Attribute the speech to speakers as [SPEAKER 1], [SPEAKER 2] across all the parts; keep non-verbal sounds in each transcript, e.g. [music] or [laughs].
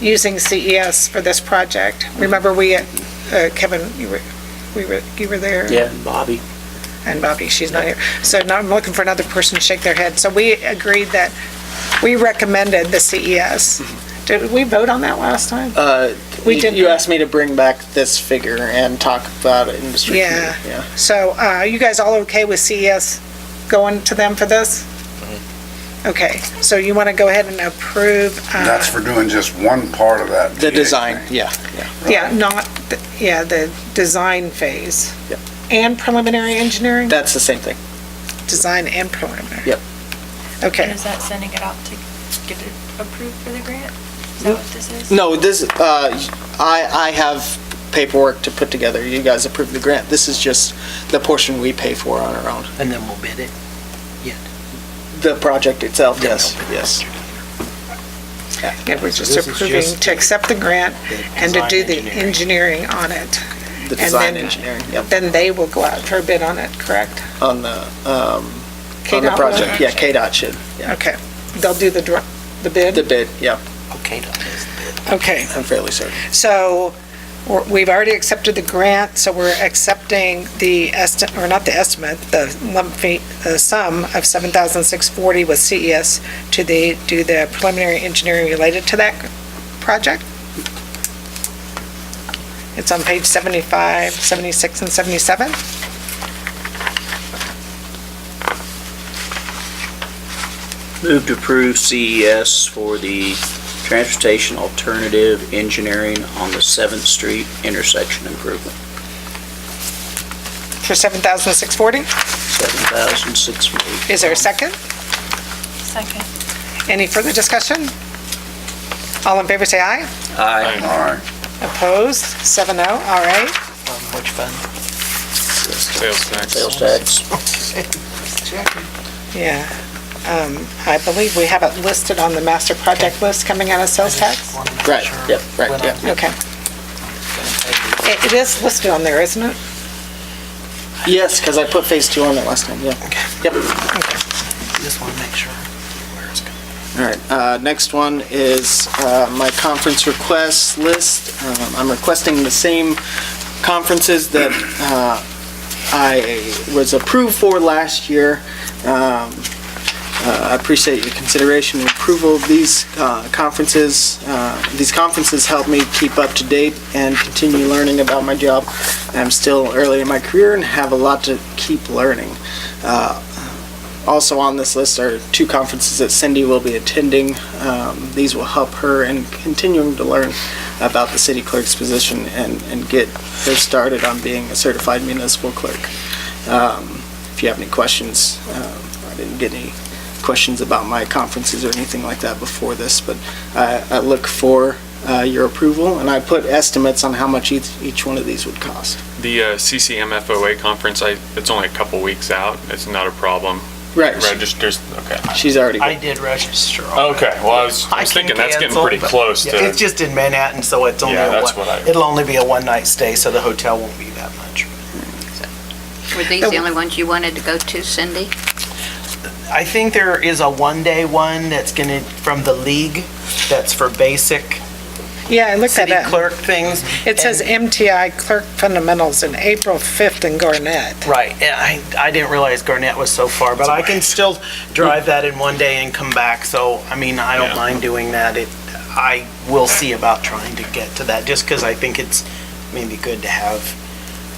[SPEAKER 1] using CES for this project. Remember, we, uh, Kevin, you were, we were, you were there?
[SPEAKER 2] Yeah, Bobby.
[SPEAKER 1] and Bobby, she's not here. So now I'm looking for another person to shake their head. So we agreed that, we recommended the CES. Did we vote on that last time?
[SPEAKER 2] Uh,
[SPEAKER 1] We
[SPEAKER 2] you-
[SPEAKER 1] did-
[SPEAKER 2] You asked me to bring back this figure and talk about it industry
[SPEAKER 1] Yeah.
[SPEAKER 2] committee. Yeah.
[SPEAKER 1] So uh, are you guys all okay with CES going to them for this?
[SPEAKER 2] Mm-hmm.
[SPEAKER 1] Okay, so you want to go ahead and approve? uh,
[SPEAKER 3] That's for doing just one part of that.
[SPEAKER 2] The
[SPEAKER 3] PA
[SPEAKER 2] design,
[SPEAKER 3] thing.
[SPEAKER 2] yeah, yeah.
[SPEAKER 1] Yeah, not, the- yeah, the design phase.
[SPEAKER 2] Yep.
[SPEAKER 1] And preliminary engineering?
[SPEAKER 2] That's the same thing.
[SPEAKER 1] Design and preliminary?
[SPEAKER 2] Yep.
[SPEAKER 4] And
[SPEAKER 1] Okay,
[SPEAKER 4] is that sending it out to get it approved for the grant? Is that what this is?
[SPEAKER 2] No, this, uh, I, I have paperwork to put together. You guys approved the grant. This is just the portion we pay for on our own.
[SPEAKER 5] And then we'll bid it?
[SPEAKER 2] The project itself, yes, yes.
[SPEAKER 1] yeah, we're just
[SPEAKER 5] this is
[SPEAKER 1] approving
[SPEAKER 5] just
[SPEAKER 1] to accept the grant and to do the engineering on it. And
[SPEAKER 2] The design
[SPEAKER 1] then-
[SPEAKER 2] engineering, yep,
[SPEAKER 1] Then they will go out for a bid on it, correct?
[SPEAKER 2] on the, um, on the
[SPEAKER 1] KDOT will?
[SPEAKER 2] project. Yeah, KDOT should, yeah.
[SPEAKER 1] Okay, they'll do the, dr- the
[SPEAKER 2] The
[SPEAKER 1] bid?
[SPEAKER 2] bid, yeah,
[SPEAKER 5] Okay, done.
[SPEAKER 1] Okay.
[SPEAKER 2] I'm fairly certain.
[SPEAKER 1] So we're- we've already accepted the grant, so we're accepting the estimate, or not the estimate, the lump fee, the sum of 7,640 with CES to the, do the preliminary engineering related to that project. It's on page 75, 76, and 77.
[SPEAKER 6] Move to approve CES for the transportation alternative engineering on the 7th Street intersection improvement,
[SPEAKER 1] For 7,640,
[SPEAKER 6] 7,640.
[SPEAKER 1] is there a second?
[SPEAKER 4] Second.
[SPEAKER 1] Any further discussion? All in favor, say aye.
[SPEAKER 6] Aye.
[SPEAKER 3] All right.
[SPEAKER 1] Opposed, 7-0, all right.
[SPEAKER 5] On which fund?
[SPEAKER 7] Sales tax.
[SPEAKER 6] Sales tax.
[SPEAKER 1] Yeah, um, I believe we have it listed on the master project list coming out of sales tax.
[SPEAKER 2] Right, yep, right, yep.
[SPEAKER 1] Okay. It it is listed on there, isn't it?
[SPEAKER 2] Yes, because I put phase two on it last time, yeah. Yep.
[SPEAKER 5] Just want to make sure where it's going.
[SPEAKER 2] All right, uh, next one is uh, my conference request list. Um, I'm requesting the same conferences that uh, I was approved for last year. Um, uh, I appreciate your consideration and approval of these uh, conferences. Uh, These conferences help me keep up to date and continue learning about my job. I'm still early in my career and have a lot to keep learning. Uh, also on this list are two conferences that Cindy will be attending. Um, these will help her in continuing to learn about the city clerk's position and, and get her started on being a certified municipal clerk. Um, if you have any questions, um, I didn't get any questions about my conferences or anything like that before this, but I, I look for uh, your approval and I put estimates on how much each, each one of these would cost.
[SPEAKER 7] The uh, CCMFOA conference, I, it's only a couple weeks out. It's not a problem.
[SPEAKER 2] Right, she-
[SPEAKER 7] Registers, okay.
[SPEAKER 2] she's already.
[SPEAKER 5] I did register. all that.
[SPEAKER 7] Okay, well, I was I
[SPEAKER 5] I
[SPEAKER 7] was
[SPEAKER 5] can
[SPEAKER 7] thinking that's getting
[SPEAKER 5] cancel,
[SPEAKER 7] pretty
[SPEAKER 5] but-
[SPEAKER 7] close
[SPEAKER 5] Yeah, It's
[SPEAKER 7] to,
[SPEAKER 5] just in Manhattan, so it's only,
[SPEAKER 7] Yeah,
[SPEAKER 5] a
[SPEAKER 7] that's
[SPEAKER 5] one-
[SPEAKER 7] what I-
[SPEAKER 5] it'll only be a one-night stay, so the hotel won't be that much.
[SPEAKER 8] Were these the only ones you wanted to go to, Cindy?
[SPEAKER 5] I think there is a one-day one that's going to, from the league, that's for basic
[SPEAKER 1] Yeah, I looked at
[SPEAKER 5] city
[SPEAKER 1] it.
[SPEAKER 5] clerk things.
[SPEAKER 1] It says
[SPEAKER 5] And-
[SPEAKER 1] MTI Clerk Fundamentals in April 5th in Garnett.
[SPEAKER 5] Right, and I, I didn't realize Garnett was so far, but I can still drive that in one day and come back, so, I mean, I don't
[SPEAKER 7] Yeah.
[SPEAKER 5] mind doing that. It, I will see about trying to get to that, just because I think it's maybe good to have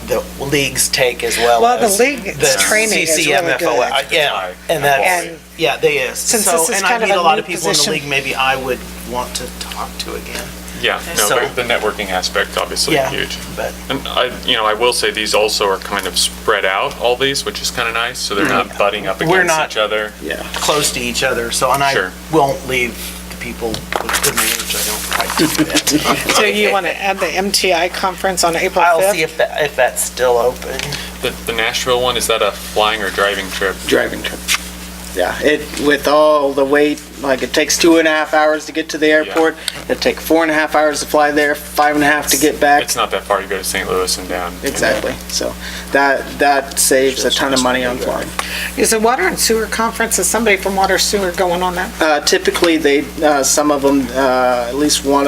[SPEAKER 5] the leagues take as well
[SPEAKER 1] Well, the
[SPEAKER 5] as
[SPEAKER 1] league's
[SPEAKER 5] the
[SPEAKER 1] training is really
[SPEAKER 5] CCMFOA.
[SPEAKER 1] good.
[SPEAKER 5] I- uh, Yeah, and that,
[SPEAKER 1] And-
[SPEAKER 5] yeah, they is.
[SPEAKER 1] Since
[SPEAKER 5] So-
[SPEAKER 1] this is kind of
[SPEAKER 5] And I
[SPEAKER 1] a
[SPEAKER 5] meet a lot
[SPEAKER 1] new
[SPEAKER 5] of people in the
[SPEAKER 1] position-
[SPEAKER 5] league, maybe I would want to talk to again,
[SPEAKER 7] yeah, no,
[SPEAKER 5] So-
[SPEAKER 7] but the networking aspect obviously
[SPEAKER 5] Yeah.
[SPEAKER 7] huge.
[SPEAKER 5] but,
[SPEAKER 7] And I, you know, I will say these also are kind of spread out, all these, which is kind of nice, so they're not butting up
[SPEAKER 5] Mm. We're
[SPEAKER 7] against
[SPEAKER 5] not-
[SPEAKER 7] each other.
[SPEAKER 5] close to each other, so, and I
[SPEAKER 7] Sure.
[SPEAKER 5] won't leave the people with good manners, I don't like to do that.
[SPEAKER 1] [laughs] So you want to add the MTI conference on April
[SPEAKER 5] I'll see
[SPEAKER 1] 5th?
[SPEAKER 5] if that, if that's still open.
[SPEAKER 7] The the Nashville one, is that a flying or driving trip?
[SPEAKER 2] driving trip. Yeah, it, with all the wait, like it takes two and a half hours to get to the airport. It'd take four and a half hours to fly there, five and a half to get back.
[SPEAKER 7] It's not that far, you go to St. Louis and down.
[SPEAKER 2] Exactly. So that, that saves a ton of money on flying.
[SPEAKER 1] Is the Water and Sewer Conference, is somebody from Water Sewer going on that?
[SPEAKER 2] Uh, typically, they, uh, some of them, uh, at least one of